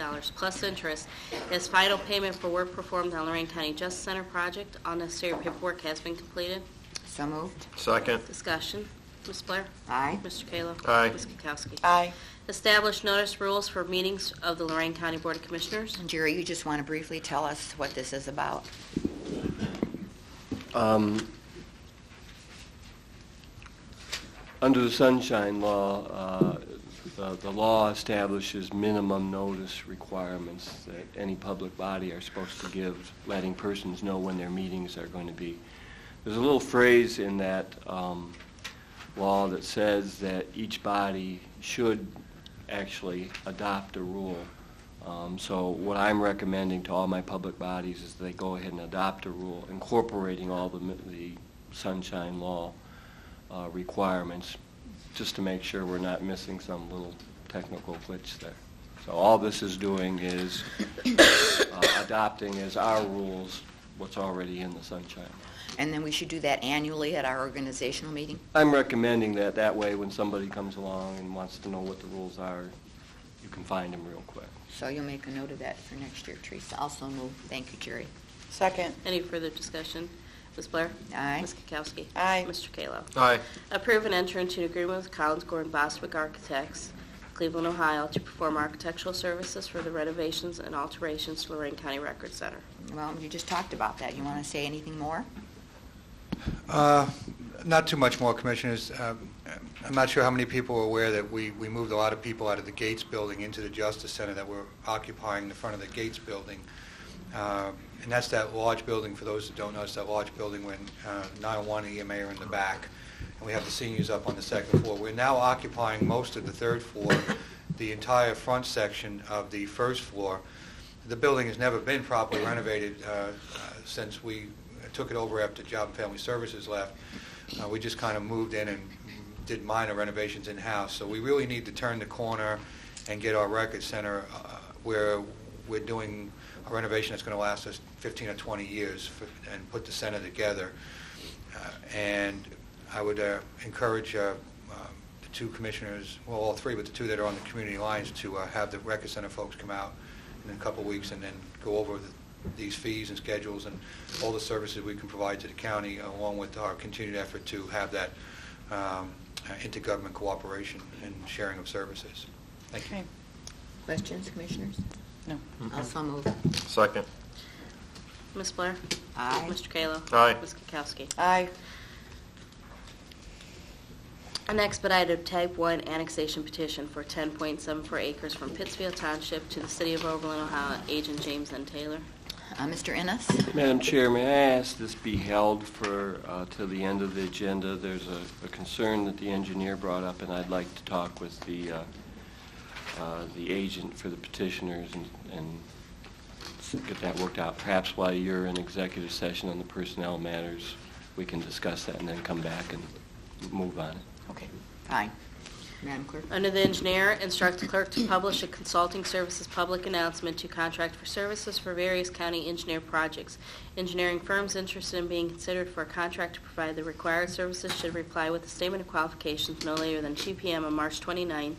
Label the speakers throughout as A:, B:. A: dollars plus interest as final payment for work performed on Lorraine County Justice Center project. All necessary paperwork has been completed.
B: So moved.
C: Second.
A: Discussion. Ms. Blair?
B: Aye.
A: Mr. Kayla?
C: Aye.
A: Ms. Kukowski?
D: aye,
A: Establish notice rules for meetings of the Lorraine County Board of Commissioners.
B: Jerry, you just want to briefly tell us what this is about?
E: Um, Under the Sunshine Law, uh, the the law establishes minimum notice requirements that any public body are supposed to give, letting persons know when their meetings are going to be. There's a little phrase in that um, law that says that each body should actually adopt a rule. Um, So what I'm recommending to all my public bodies is they go ahead and adopt a rule incorporating all the mi- the sunshine law uh, requirements, just to make sure we're not missing some little technical glitch there. So all this is doing is uh, adopting as our rules what's already in the sunshine. law.
B: And then we should do that annually at our organizational meeting?
E: I'm recommending that, that way when somebody comes along and wants to know what the rules are, you can find them real quick.
B: So you'll make a note of that for next year, Teresa. Also moved. Thank you, Jerry.
D: second,
A: Any further discussion? Ms. Blair?
B: Aye.
A: Ms. Kukowski?
D: Aye.
A: Mr. Kayla?
C: Aye.
A: Approve and enter into an agreement with Collins Gore and Bostwick Architects, Cleveland, Ohio, to perform architectural services for the renovations and alterations to Lorraine County Record Center.
B: Well, you just talked about that. You want to say anything more?
F: Uh, Not too much more, Commissioners. Uh, I'm not sure how many people are aware that we we moved a lot of people out of the Gates Building into the Justice Center that were occupying the front of the Gates Building. Uh, And that's that large building, for those that don't know, it's that large building when uh, 901 EMA are in the back, and we have the seniors up on the second floor. We're now occupying most of the third floor, the entire front section of the first floor. The building has never been properly renovated uh, uh, since we took it over after Job and Family Services left. Uh, We just kind of moved in and did minor renovations in-house. So we really need to turn the corner and get our record center uh, where we're doing a renovation that's going to last us 15 or 20 years for- and put the center together. Uh, And I would uh, encourage uh, um, the two commissioners, well, all three, but the two that are on the community lines, to uh, have the record center folks come out in a couple of weeks and then go over the- these fees and schedules and all the services we can provide to the county, along with our continued effort to have that um, uh, intergovernment cooperation and sharing of services. Thank you.
D: okay,
B: Questions, Commissioners?
D: no,
B: Also moved.
C: Second.
A: Ms. Blair?
B: Aye.
A: Mr. Kayla?
C: Aye.
A: Ms. Kukowski?
D: aye,
A: An expedited type 1 annexation petition for 10.74 acres from Pittsfield Township to the City of Oberlin, Ohio, agent James N. Taylor.
B: Uh, Mr. Ennis?
E: Madam Chair, may I ask this be held for, uh, till the end of the agenda? There's a a concern that the engineer brought up, and I'd like to talk with the, uh, uh, the agent for the petitioners and- and s- get that worked out. Perhaps while you're in executive session on the personnel matters, we can discuss that and then come back and move on it.
D: okay,
B: Fine. Madam Clerk?
A: Under the engineer, instruct the clerk to publish a consulting services public announcement to contract for services for various county engineer projects. Engineering firms interested in being considered for a contract to provide the required services should reply with a statement of qualifications no later than 2 PM on March 29th.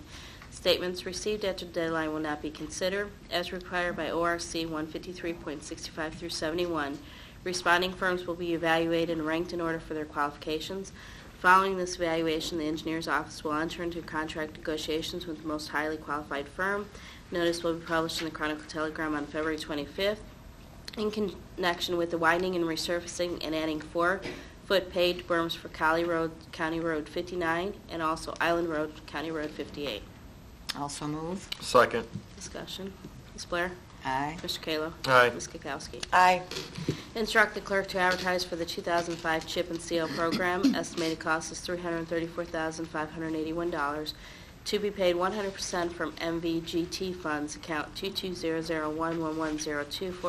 A: Statements received after the deadline will not be considered as required by ORC 153.65 through 71. Responding firms will be evaluated and ranked in order for their qualifications. Following this evaluation, the engineer's office will enter into contract negotiations with the most highly qualified firm. Notice will be published in the Chronicle Telegram on February 25th in connection with the widening and resurfacing and adding four-foot paved berms for Cali Road, County Road 59, and also Island Road, County Road 58.
B: Also moved.
C: Second.
A: Discussion. Ms. Blair?
B: Aye.
A: Mr. Kayla?
C: Aye.
A: Ms. Kukowski?
D: aye,
A: Instruct the clerk to advertise for the 2005 CHIP and seal program. Estimated cost is $334,581, to be paid 100% from MVGT funds, account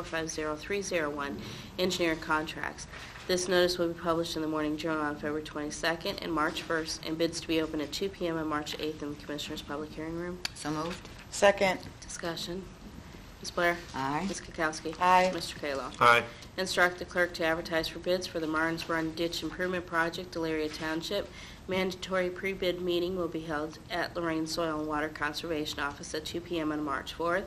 A: 220011102450301, engineer contracts. This notice will be published in the Morning Journal on February 22nd and March 1st, and bids to be open at 2 p.m. on March 8th in the Commissioners' Public Hearing Room.
B: So moved.
D: second,
A: Discussion. Ms. Blair?
B: Aye.
A: Ms. Kukowski?
D: Aye.
A: Mr. Kayla?
C: Aye.
A: Instruct the clerk to advertise for bids for the Martins Run Ditch Improvement Project, Delaria Township. Mandatory pre-bid meeting will be held at Lorraine Soil and Water Conservation Office at 2 PM on March 4th.